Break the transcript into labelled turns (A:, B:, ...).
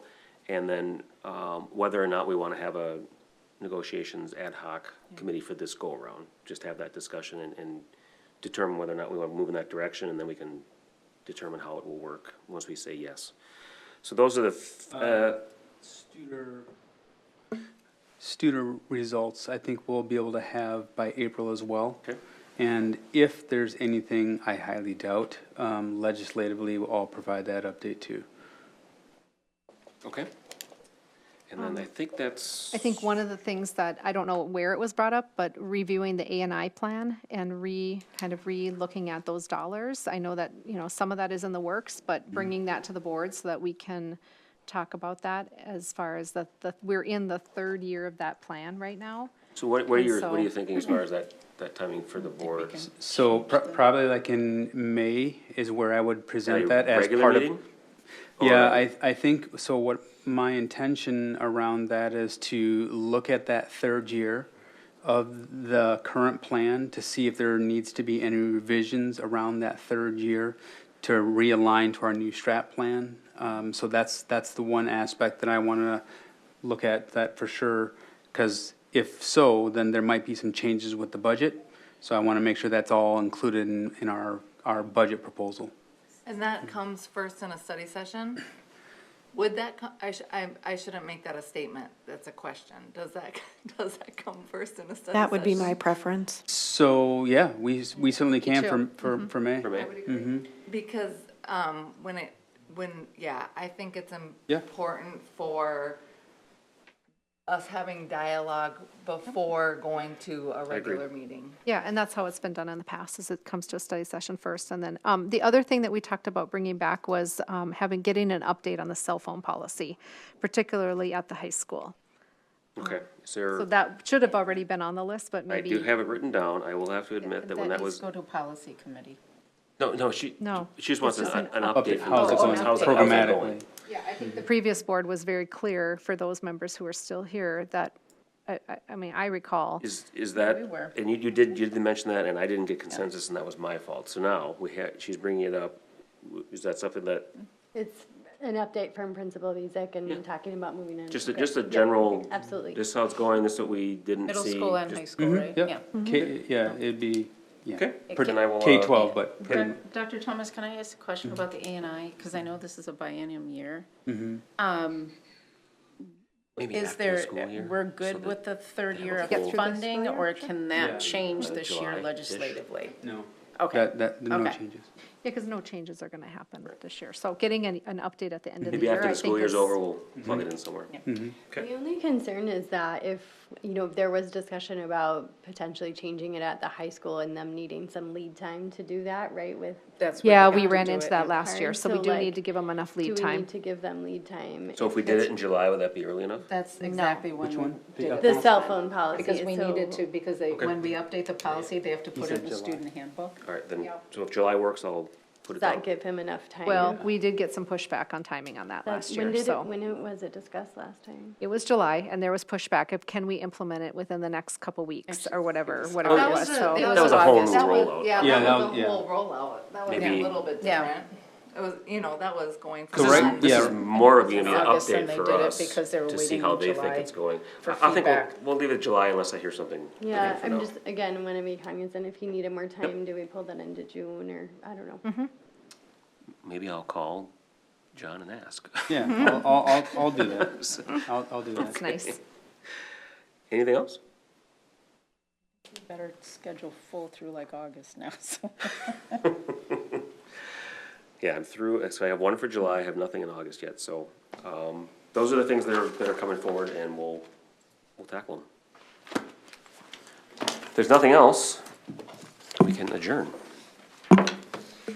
A: And then, um, whether or not we wanna have a negotiations ad hoc committee for this go-around, just have that discussion and, and determine whether or not we wanna move in that direction, and then we can determine how it will work, once we say yes. So those are the, f- uh,
B: Studer. Studer results, I think we'll be able to have by April as well.
A: Okay.
B: And if there's anything I highly doubt, um, legislatively, I'll provide that update too.
A: okay. And then I think that's.
C: Um, I think one of the things that, I don't know where it was brought up, but reviewing the A and I plan and re, kind of re-looking at those dollars. I know that, you know, some of that is in the works,
A: Mm.
C: but bringing that to the board so that we can talk about that as far as the, the, we're in the third year of that plan right now.
A: So what, what are
C: And
A: your, what are you
C: so-
A: thinking as far as that, that timing for the board?
B: So pro- probably like in May is where I would present
A: At a
B: that as
A: regular
B: part of.
A: meeting?
B: Yeah,
A: Or-
B: I, I think, so what my intention around that is to look at that third year of the current plan to see if there needs to be any revisions around that third year to realign to our new strat plan. Um, so that's, that's the one aspect that I wanna look at that for sure, cause if so, then there might be some changes with the budget. So I wanna make sure that's all included in, in our, our budget proposal.
D: And that comes first in a study session? Would that, co- I sh I, I shouldn't make that a statement, that's a question. Does that, does that come first in a study session?
E: That would be my preference.
B: So, yeah, we, we certainly can for,
C: too.
B: for, for May.
A: For May?
D: Because, um, when it, when, yeah, I think it's
B: Yeah.
D: important for us having dialogue before going to a regular meeting.
C: Yeah, and that's how it's been done in the past, is it comes to a study session first, and then, um, the other thing that we talked about bringing back was, um, having, getting an update on the cell phone policy, particularly at the high school.
A: Okay, is
C: So
A: there,
C: that should have already been on the list, but
A: I
C: maybe.
A: do have it written down, I will have to admit that when that was,
F: to policy committee.
A: no, no, she,
C: No,
A: she just wants an,
C: it's
A: an
C: just an
A: update from.
B: How's it
A: the-
B: going
A: Oh, how's it- how's it going?
B: programmatically?
C: Yeah, I think the previous board was very clear for those members who are still here that, I, I, I mean, I recall.
A: Is, is that,
F: We were.
A: and you, you did, you did mention that, and I didn't get consensus, and that was my fault, so now, we had, she's bringing it up, W- is that something that,
F: Mm-hmm.
G: It's an update from Principal Bezick and talking about moving in.
A: just, a- just a general?
G: absolutely.
A: This is how it's going, this is what we didn't see?
F: Middle school and
A: just-
F: high school, right?
B: Mm-hmm. Yeah, K, yeah, it'd be, yeah,
A: Okay, then I will. uh,
B: K twelve, but pretty mu-
F: Doc- Dr. Thomas, can I ask a question about the A and I? Because I know this is a biennium year.
A: Mm-hmm.
F: Um,
A: maybe
F: Is
A: after the
F: there,
A: school year,
F: we're
A: so
F: good
A: that-
F: with the third year
A: Get through
F: of
A: this
F: funding, or can
B: Yeah.
F: that change this
A: July-ish.
F: year legislatively?
B: no.
F: Okay.
B: That, that, no
F: Okay.
B: changes.
C: Yeah, because no changes are gonna happen this year, so getting an, an update at the end of the
A: Maybe
C: year,
A: after
C: I
A: the school
C: think
A: year's
C: is.
A: over, we'll
B: Mm-hmm.
A: plug it in somewhere.
G: The only concern is that if, you know, there was discussion about potentially changing it at the high school and them needing some lead time to do that, right, with.
F: That's where
C: Yeah,
F: have
C: we
F: to
C: ran
F: do
C: into
F: it.
C: that last year,
G: Hard,
C: so we
G: so,
C: do need
G: like,
C: to give them enough
G: Do
C: lead
G: we
C: time.
G: need to give them lead time?
A: So if we did it in July, would that be early enough?
F: That's exactly when.
B: Which one?
F: we did it
G: The
F: last
G: cell
F: time.
G: phone policy.
F: Because we
G: so-
F: needed to, because they, when we update the policy, they have to put it in the student handbook.
A: All right, then, so if July works, I'll put it
G: Does
A: down.
G: that give him enough time?
C: Well, we did get some pushback on timing on that
G: Like,
C: last
G: when
C: year,
G: did it-
C: so.
G: When it- was it discussed last time?
C: It was July, and there was pushback of can we implement it within the next couple weeks, or whatever, whatever
A: That
C: it
A: was
C: was, so.
A: that was was a whole
F: August.
A: new
F: That was-
A: rollout.
D: Yeah,
B: Yeah,
D: that was a
B: that-
D: whole rollout, that was
A: Maybe-
D: a little bit
F: Yeah.
D: different. It was, you know, that was going.
B: So
A: This is-
B: right-
D: from-
A: This
B: yeah.
A: is more of an
F: August and
A: update
F: they
A: for
F: did it
A: us
F: because they were
A: to see
F: waiting
A: how
F: in
A: they think
F: July
A: it's going.
F: for
A: I I think we'll,
F: feedback.
A: we'll leave it July unless I hear something.
G: Yeah,
A: different for
G: I'm
A: now.
G: just, again, wanna be cognizant, if he needed more time, do we pull that into June or, I don't know.
A: Maybe I'll call John and ask.
B: Yeah, I'll, I'll, I'll, I'll do that. I'll, I'll do
C: It's
B: that.
C: nice.
A: Anything else?
F: Better schedule full through like August now, so.
A: Yeah, I'm through, so I have one for July, I have nothing in August yet, so, um, those are the things that are, that are coming forward and we'll, we'll tackle them. If there's nothing else, we can adjourn.